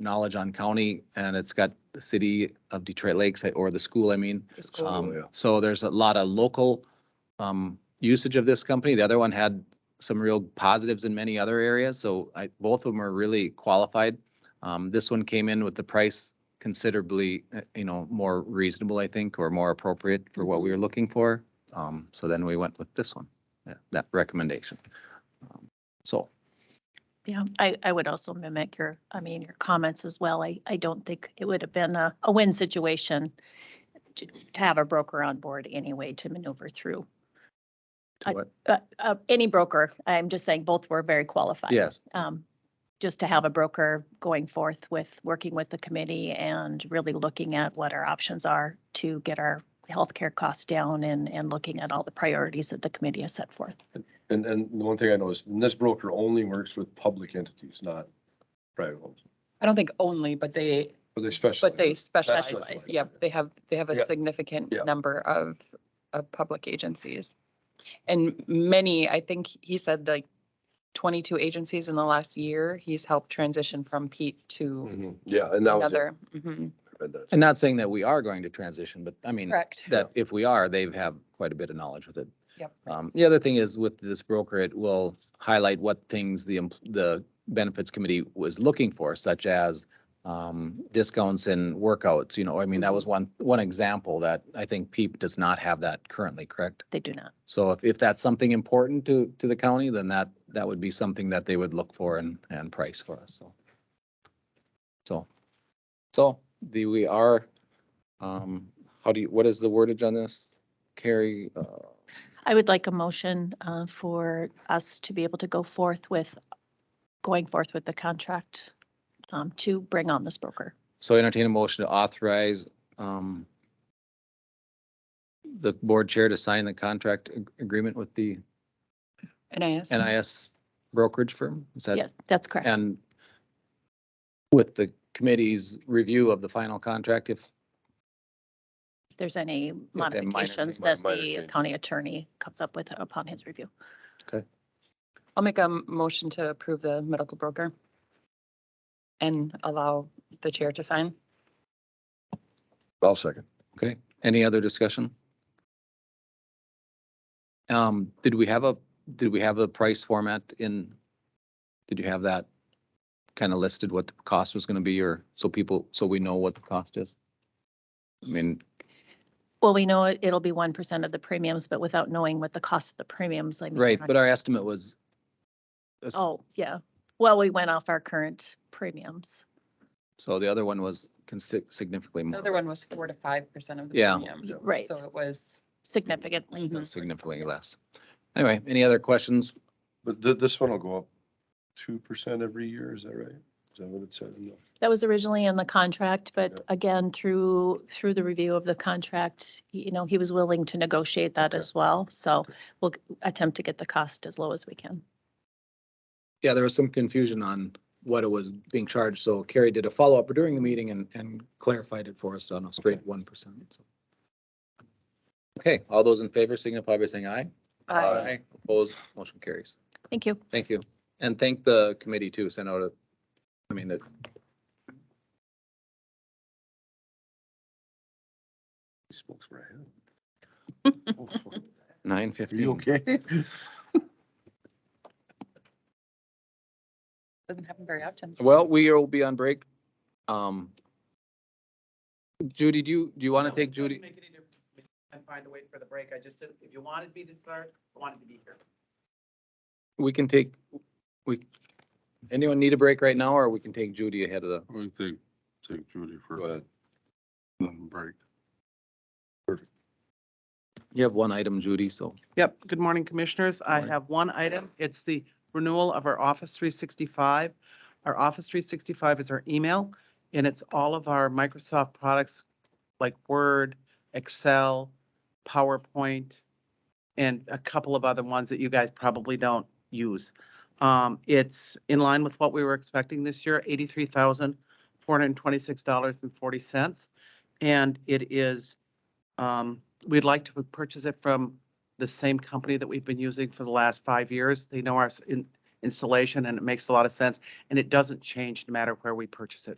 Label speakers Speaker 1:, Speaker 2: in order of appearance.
Speaker 1: knowledge on county and it's got the city of Detroit Lakes or the school, I mean.
Speaker 2: It's cool.
Speaker 1: Um,
Speaker 3: Oh, yeah.
Speaker 1: So there's a lot of local um, usage of this company. The other one had some real positives in many other areas, so I, both of them are really qualified. Um, This one came in with the price considerably, uh, you know, more reasonable, I think, or more appropriate for what we were looking for. Um, So then we went with this one, that- that recommendation. Um, So,
Speaker 2: Yeah, I, I would also mimic your, I mean, your comments as well. I, I don't think it would have been a, a win situation to, to have a broker on board anyway to maneuver through.
Speaker 1: to
Speaker 2: I-
Speaker 1: what-
Speaker 2: Uh, uh, any broker, I'm just saying both were very qualified.
Speaker 1: yes,
Speaker 2: Um, just to have a broker going forth with, working with the committee and really looking at what our options are to get our healthcare costs down and, and looking at all the priorities that the committee has set forth.
Speaker 3: And, and the one thing I noticed, and this broker only works with public entities, not private homes,
Speaker 4: I don't think only, but they,
Speaker 3: but they specialize.
Speaker 4: but they specialize.
Speaker 3: Specialize.
Speaker 4: Yep, they have, they have
Speaker 3: Yeah.
Speaker 4: a significant
Speaker 3: Yeah.
Speaker 4: number of, of public agencies. And many, I think he said like twenty-two agencies in the last year, he's helped transition from Pete to
Speaker 3: Mhm. Yeah, and that was. it.
Speaker 4: another. Mhm.
Speaker 3: I read that.
Speaker 1: and not saying that we are going to transition, but I mean,
Speaker 4: Correct.
Speaker 1: that if we are, they have quite a bit of knowledge with it.
Speaker 4: Yep.
Speaker 1: Um, the other thing is with this broker, it will highlight what things the, em- the benefits committee was looking for, such as um, discounts in workouts, you know, I mean, that was one, one example that I think PEEP does not have that currently, correct?
Speaker 2: They do not.
Speaker 1: So if, if that's something important to, to the county, then that, that would be something that they would look for and, and price for us, so. So, so the, we are, um, how do you, what is the wordage on this? Carrie, uh,
Speaker 2: I would like a motion uh, for us to be able to go forth with, going forth with the contract um, to bring on this broker.
Speaker 1: so entertain a motion to authorize, um, the board chair to sign the contract ag- agreement with the
Speaker 4: NIS.
Speaker 1: NIS brokerage firm? Is that
Speaker 2: Yes, that's correct.
Speaker 1: And with the committee's review of the final contract, if
Speaker 2: If there's any
Speaker 1: minor thing,
Speaker 2: modifications
Speaker 3: minor-
Speaker 2: that
Speaker 3: minor
Speaker 2: the
Speaker 3: change.
Speaker 2: county attorney comes up with upon his review.
Speaker 4: I'll make a motion to approve the medical broker and allow the chair to sign.
Speaker 3: I'll second.
Speaker 1: Okay, any other discussion? Um, did we have a, did we have a price format in? Did you have that kind of listed what the cost was gonna be or so people, so we know what the cost is? I mean,
Speaker 2: Well, we know it, it'll be 1% of the premiums, but without knowing what the cost of the premiums, I mean.
Speaker 1: right,
Speaker 2: not-
Speaker 1: but our estimate was. uh,
Speaker 2: Oh, yeah. Well, we went off our current premiums.
Speaker 1: So the other one was consi- significantly
Speaker 4: The other
Speaker 1: more,
Speaker 4: one was four to five percent of the
Speaker 1: Yeah.
Speaker 4: premium.
Speaker 2: Y- Right,
Speaker 4: So it was.
Speaker 2: significantly.
Speaker 4: mhm.
Speaker 1: significantly less. Anyway, any other questions?
Speaker 3: But th- this one will go up two percent every year, is that right? Is that what it said? in the-
Speaker 2: That was originally in the contract, but
Speaker 3: Yeah.
Speaker 2: again, through, through the review of the contract, y- you know, he was willing to negotiate that
Speaker 3: Okay.
Speaker 2: as well. So we'll g- attempt to get the cost as low as we can.
Speaker 1: Yeah, there was some confusion on what it was being charged, so Carrie did a follow-up during the meeting and, and clarified it for us on a straight one percent. Okay, all those in favor signify by saying aye.
Speaker 4: uh,
Speaker 3: Aye.
Speaker 1: Opposed, motion carries.
Speaker 2: Thank you.
Speaker 1: Thank you. And thank the committee too, sent out a, I mean, it,
Speaker 3: He spoke for a hand. Oh,
Speaker 1: nine
Speaker 3: Are you
Speaker 1: fifteen.
Speaker 3: okay?
Speaker 4: Doesn't happen very often.
Speaker 1: Well, we will be on break. Um. Judy, do you, do you want to
Speaker 5: No,
Speaker 1: take
Speaker 5: it doesn't
Speaker 1: Judy?
Speaker 5: make any difference. I find a way for the break. I just didn't, if you wanted me to start, I wanted to be here.
Speaker 1: We can take, we, anyone need a break right now, or we can take Judy ahead of the?
Speaker 6: We take, take Judy
Speaker 3: Go
Speaker 6: for
Speaker 3: ahead.
Speaker 6: a break.
Speaker 1: You have one item, Judy, so.
Speaker 5: Yep. Good morning, Commissioners. I
Speaker 1: Morning.
Speaker 5: have one item. It's the renewal of our Office 365. Our Office 365 is our email, and it's all of our Microsoft products like Word, Excel, PowerPoint, and a couple of other ones that you guys probably don't use. Um, It's in line with what we were expecting this year, $83,426.40. And it is, um, we'd like to purchase it from the same company that we've been using for the last five years. They know our s- in- installation and it makes a lot of sense. And it doesn't change no matter where we purchase it